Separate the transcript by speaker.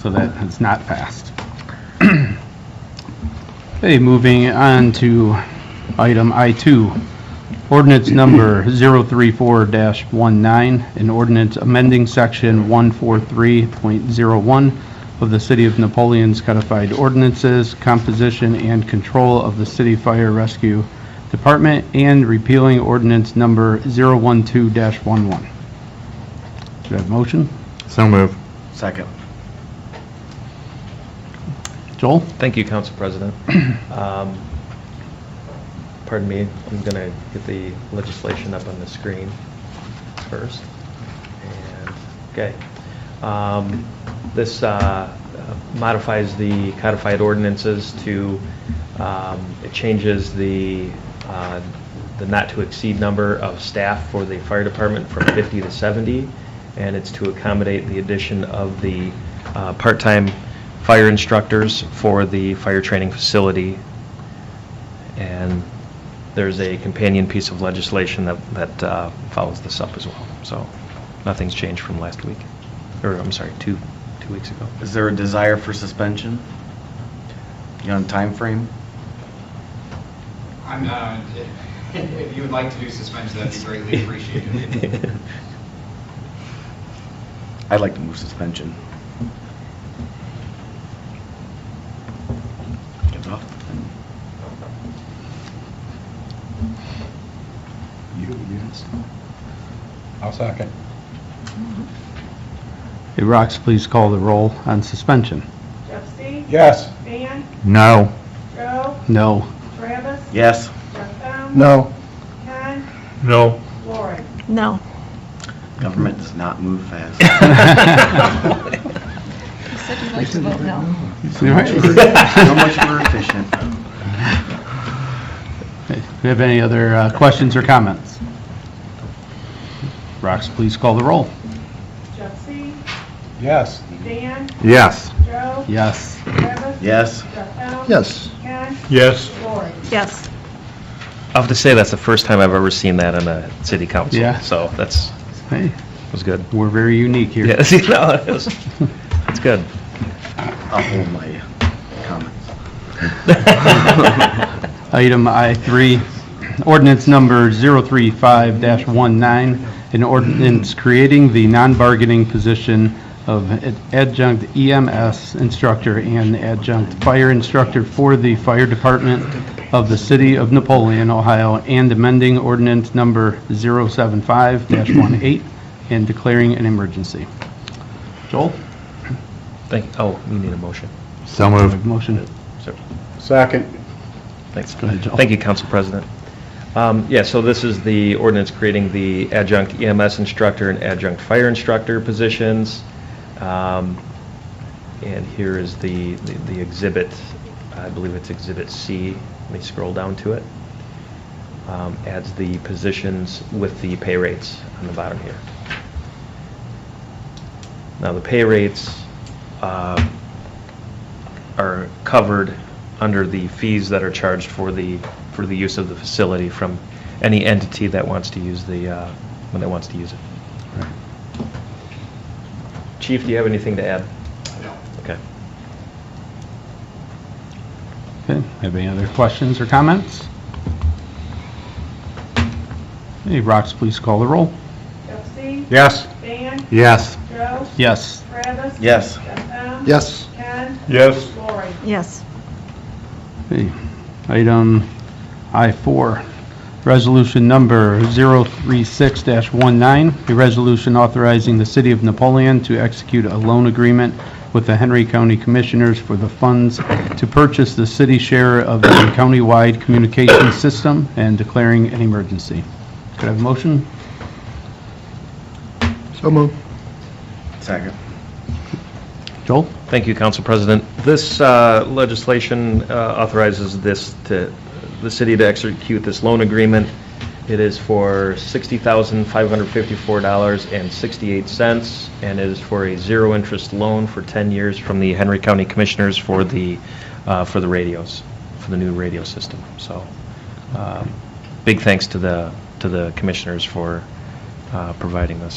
Speaker 1: so that it's not passed. Okay, moving on to item I2, ordinance number 034-19, an ordinance amending section 143.01 of the City of Napoleon's codified ordinances, composition and control of the City Fire Rescue Department, and repealing ordinance number 012-11. Do you have a motion?
Speaker 2: So move.
Speaker 3: Second.
Speaker 1: Joel?
Speaker 4: Thank you, Council President. Um, Pardon me, I'm going to get the legislation up on the screen first. And, okay. Um, This uh, modifies the codified ordinances to, um, it changes the, uh, the not-to-exceed number of staff for the fire department from 50 to 70, and it's to accommodate the addition of the uh, part-time fire instructors for the fire training facility. And there's a companion piece of legislation that, that uh, follows this up as well. So nothing's changed from last week, or I'm sorry, two, two weeks ago.
Speaker 3: Is there a desire for suspension? You on timeframe?
Speaker 5: I'm not, if you would like to do suspension, that'd be greatly appreciated.
Speaker 3: I'd like to move suspension. Get off. You, yes.
Speaker 2: I'll second.
Speaker 1: Hey, Rox, please call the roll on suspension.
Speaker 6: Jeff C.
Speaker 2: Yes.
Speaker 6: Dan,
Speaker 2: No.
Speaker 6: Joe,
Speaker 1: No.
Speaker 6: Travis.
Speaker 3: Yes.
Speaker 6: Jeff M.
Speaker 2: No.
Speaker 6: Ken,
Speaker 2: No.
Speaker 6: Lauren.
Speaker 7: No.
Speaker 3: Government does not move fast.
Speaker 7: You said you'd like to vote no.
Speaker 3: So much more efficient.
Speaker 1: Hey, Do you have any other uh, questions or comments? Rox, please call the roll.
Speaker 6: Jeff C.
Speaker 2: Yes.
Speaker 6: Dan,
Speaker 2: Yes.
Speaker 6: Joe,
Speaker 1: Yes.
Speaker 6: Travis.
Speaker 3: Yes.
Speaker 6: Jeff M.
Speaker 2: Yes.
Speaker 6: Ken,
Speaker 2: Yes.
Speaker 6: Lauren.
Speaker 7: Yes.
Speaker 4: I have to say, that's the first time I've ever seen that in a city council.
Speaker 1: Yeah.
Speaker 4: So that's,
Speaker 1: Hey,
Speaker 4: was good.
Speaker 1: we're very unique here.
Speaker 4: Yeah, see, no, it was, it's good.
Speaker 3: I'll hold my comments.
Speaker 1: Item I3, ordinance number 035-19, an ordinance creating the non-bargaining position of adjunct EMS instructor and adjunct fire instructor for the fire department of the city of Napoleon, Ohio, and amending ordinance number 075-18 and declaring an emergency. Joel?
Speaker 4: Thank, oh, we need a motion.
Speaker 2: So move.
Speaker 1: Motion.
Speaker 4: So-
Speaker 2: Second.
Speaker 4: Thanks.
Speaker 1: Go ahead, Joel.
Speaker 4: Thank you, Council President. Um, Yeah, so this is the ordinance creating the adjunct EMS instructor and adjunct fire instructor positions. Um, And here is the, the- the exhibit, I believe it's Exhibit C. Let me scroll down to it. Um, Adds the positions with the pay rates on the bottom here. Now, the pay rates uh, are covered under the fees that are charged for the, for the use of the facility from any entity that wants to use the, uh, when that wants to use it. Chief, do you have anything to add?
Speaker 5: No.
Speaker 4: Okay.
Speaker 1: Okay, have any other questions or comments? Hey, Rox, please call the roll.
Speaker 6: Jeff C.
Speaker 2: Yes.
Speaker 6: Dan,
Speaker 2: Yes.
Speaker 6: Joe,
Speaker 1: Yes.
Speaker 6: Travis.
Speaker 3: Yes.
Speaker 6: Jeff M.
Speaker 2: Yes.
Speaker 6: Ken,
Speaker 2: Yes.
Speaker 6: Lauren.
Speaker 7: Yes.
Speaker 1: Okay. Item I4, resolution number 036-19, a resolution authorizing the City of Napoleon to execute a loan agreement with the Henry County Commissioners for the funds to purchase the city share of the countywide communication system and declaring an emergency. Could I have a motion?
Speaker 2: So move.
Speaker 3: Second.
Speaker 1: Joel?
Speaker 4: Thank you, Council President. This uh, legislation uh, authorizes this to, the city to execute this loan agreement. It is for $60,554.68 and is for a zero-interest loan for 10 years from the Henry County Commissioners for the, uh, for the radios, for the new radio system. So, um, big thanks to the, to the commissioners for uh, providing this.